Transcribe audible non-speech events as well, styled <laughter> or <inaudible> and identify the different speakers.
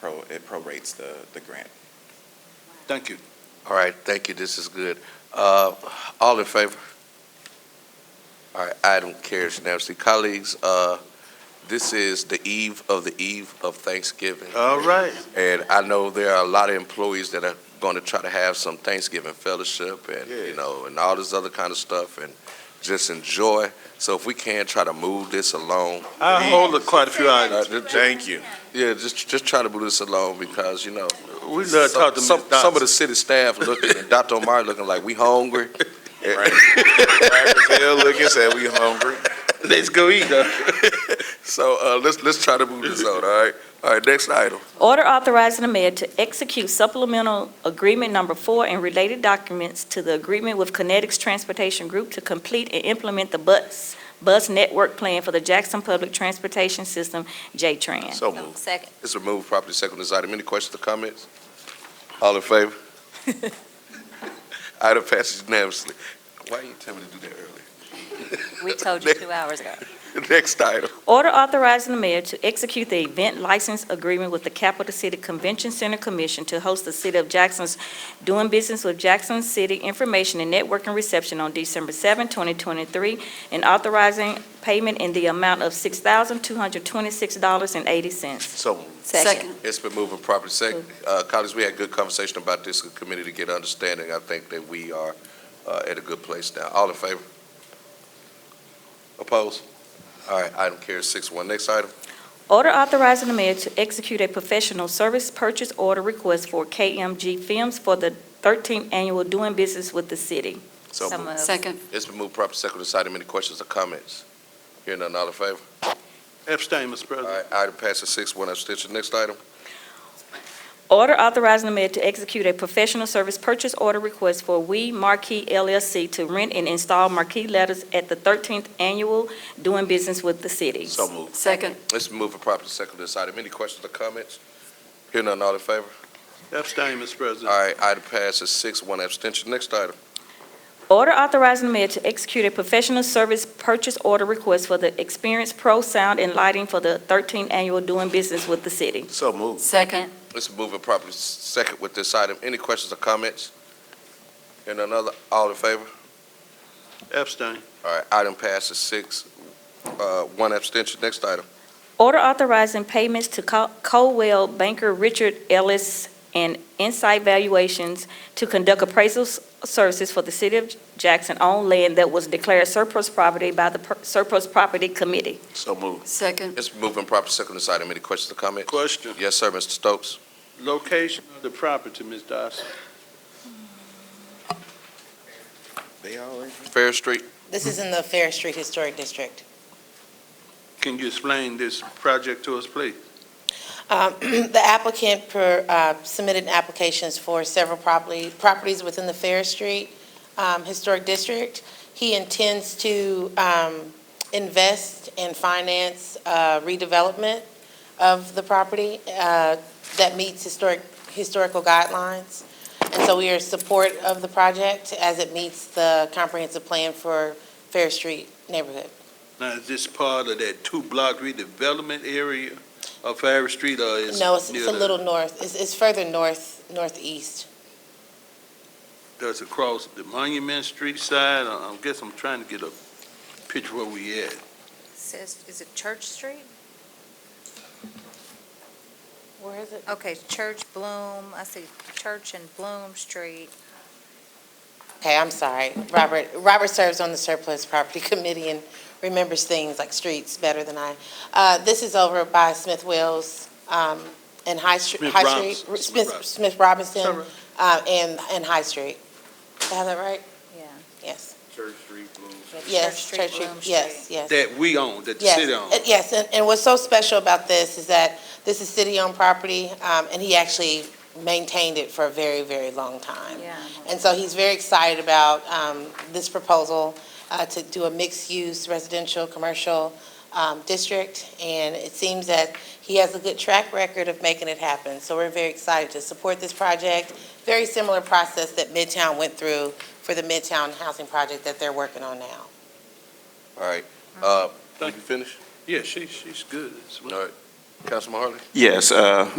Speaker 1: pro, it prorates the, the grant.
Speaker 2: Thank you.
Speaker 3: All right, thank you, this is good. Uh, All in favor? All right, item carries unanimously. Colleagues, uh, this is the eve of the eve of Thanksgiving.
Speaker 2: All right.
Speaker 3: And I know there are a lot of employees that are going to try to have some Thanksgiving fellowship and, you
Speaker 2: Yeah.
Speaker 3: know, and all this other kind of stuff and just enjoy. So if we can, try to move this along.
Speaker 2: I hold quite a few items.
Speaker 3: Uh,
Speaker 2: Thank you.
Speaker 3: Yeah, just, just try to move this along because, you know,
Speaker 2: We love
Speaker 3: some-
Speaker 2: talking to Ms.
Speaker 3: Some some of the
Speaker 2: Dodson.
Speaker 3: city staff looking, and Dr. Omari looking like, we hungry. <laughs>
Speaker 1: Bill Lucas said we hungry.
Speaker 2: Let's go eat, though.
Speaker 3: So, uh, let's, let's try to move this on, all right? All right, next item.
Speaker 4: Order authorizing the mayor to execute supplemental agreement number four and related documents to the agreement with Kinetics Transportation Group to complete and implement the bus, bus network plan for the Jackson Public Transportation System, J-Trans.
Speaker 3: So moved.
Speaker 5: Second.
Speaker 3: It's removed properly second this item. Any questions or comments? All in
Speaker 5: <laughs>
Speaker 3: favor? Item passes unanimously. Why you tell me to do that early?
Speaker 5: We
Speaker 3: <laughs>
Speaker 5: told you two hours ago.
Speaker 3: Next item.
Speaker 4: Order authorizing the mayor to execute the event license agreement with the Capital City Convention Center Commission to host the City of Jackson's Doing Business with Jackson City Information and Networking Reception on December 7, 2023, and authorizing payment in the amount of $6,226.80.
Speaker 3: So moved. It's been moving properly second. Uh, colleagues, we had good conversation about this in committee to get understanding. I think that we are, uh, at a good place now. All in favor? Opposed? All right, item carries six one. Next item.
Speaker 4: Order authorizing the mayor to execute a professional service purchase order request for KMG Films for the 13th Annual Doing Business with the City.
Speaker 3: So moved.
Speaker 5: moved.
Speaker 6: Second,
Speaker 3: It's been moved properly second this item. Any questions or comments? Hearing none, all in favor?
Speaker 2: Abstain, Mr.
Speaker 3: All
Speaker 2: President.
Speaker 3: right, item passes six one. Abstention. Next item.
Speaker 4: Order authorizing the mayor to execute a professional service purchase order request for We Marquee LLC to rent and install marquee letters at the 13th Annual Doing Business with the City.
Speaker 3: moved.
Speaker 6: second,
Speaker 3: Let's move for properly second this item. Any questions or comments? Hearing none, all in favor?
Speaker 2: Abstain, Mr.
Speaker 3: All
Speaker 2: President.
Speaker 3: right, item passes six one. Abstention. Next item.
Speaker 4: Order authorizing the mayor to execute a professional service purchase order request for the Experience Pro Sound and Lighting for the 13th Annual Doing Business with the City.
Speaker 3: So moved.
Speaker 6: second,
Speaker 3: Let's move it properly second with this item. Any questions or comments? And another, all in favor?
Speaker 2: Abstain.
Speaker 3: All right, item passes six, uh, one abstention. Next item.
Speaker 4: Order authorizing payments to Co- Coldwell Banker Richard Ellis and Insight Valuations to conduct appraisal s- services for the city of Jackson on land that was declared surplus property by the per- Surplus Property Committee.
Speaker 3: So moved.
Speaker 6: second,
Speaker 3: Let's move in properly second this item. Any questions or comments?
Speaker 2: Question.
Speaker 3: Yes, sir, Mr. Stokes.
Speaker 2: Location of the property, Ms. Dodson.
Speaker 1: They all in.
Speaker 3: Fair Street.
Speaker 7: This is in the Fair Street Historic District.
Speaker 2: Can you explain this project to us, please?
Speaker 7: Um, <clears throat> The applicant per- uh, submitted applications for several property- properties within the Fair Street um, Historic District. He intends to um, invest and finance uh, redevelopment of the property uh, that meets historic, historical guidelines. And so we are supportive of the project as it meets the comprehensive plan for Fair Street neighborhood.
Speaker 2: Now, is this part of that two-block redevelopment area of Harris Street, or is?
Speaker 7: No, it's, it's
Speaker 2: near
Speaker 7: a
Speaker 2: the-
Speaker 7: little north, it's, it's further north, northeast.
Speaker 2: Does it cross the Monument Street side? I I guess I'm trying to get a picture where we at.
Speaker 5: Says, is it Church Street?
Speaker 7: Where is it?
Speaker 5: Okay, Church Bloom, I see Church and Bloom Street.
Speaker 7: Okay, I'm sorry. Robert, Robert serves on the surplus property <laughs> committee and remembers things like streets better than I. Uh, this is over by Smith Wells, um, and High Street.
Speaker 2: Smith
Speaker 7: High
Speaker 2: Robinson.
Speaker 7: Street,
Speaker 2: Smith
Speaker 7: Smith,
Speaker 2: Robinson. Is
Speaker 7: Smith
Speaker 2: that
Speaker 7: Robinson,
Speaker 2: right?
Speaker 7: uh, and, and High Street. Did I have that right?
Speaker 5: Yeah.
Speaker 7: Yes,
Speaker 1: Church Street Blues.
Speaker 7: yes,
Speaker 5: Street,
Speaker 7: Church Street,
Speaker 5: Bloom
Speaker 7: yes, yes.
Speaker 2: That we own, that the
Speaker 7: Yes,
Speaker 2: city owns.
Speaker 7: and- Yes, and, and what's so special about this is that this is city-owned property, um, and he actually maintained it for a very, very long time.
Speaker 5: Yeah.
Speaker 7: And so he's very excited about, um, this proposal, uh, to do a mixed-use residential, commercial, um, district. And it seems that he has a good track record of making it happen, so we're very excited to support this project. Very similar process that Midtown went through for the Midtown Housing Project that they're working on now.
Speaker 3: All right, uh, you
Speaker 2: Thank you.
Speaker 3: finish?
Speaker 2: Yeah, she, she's good. It's-
Speaker 3: All right, Councilman Harley?
Speaker 1: Yes, uh,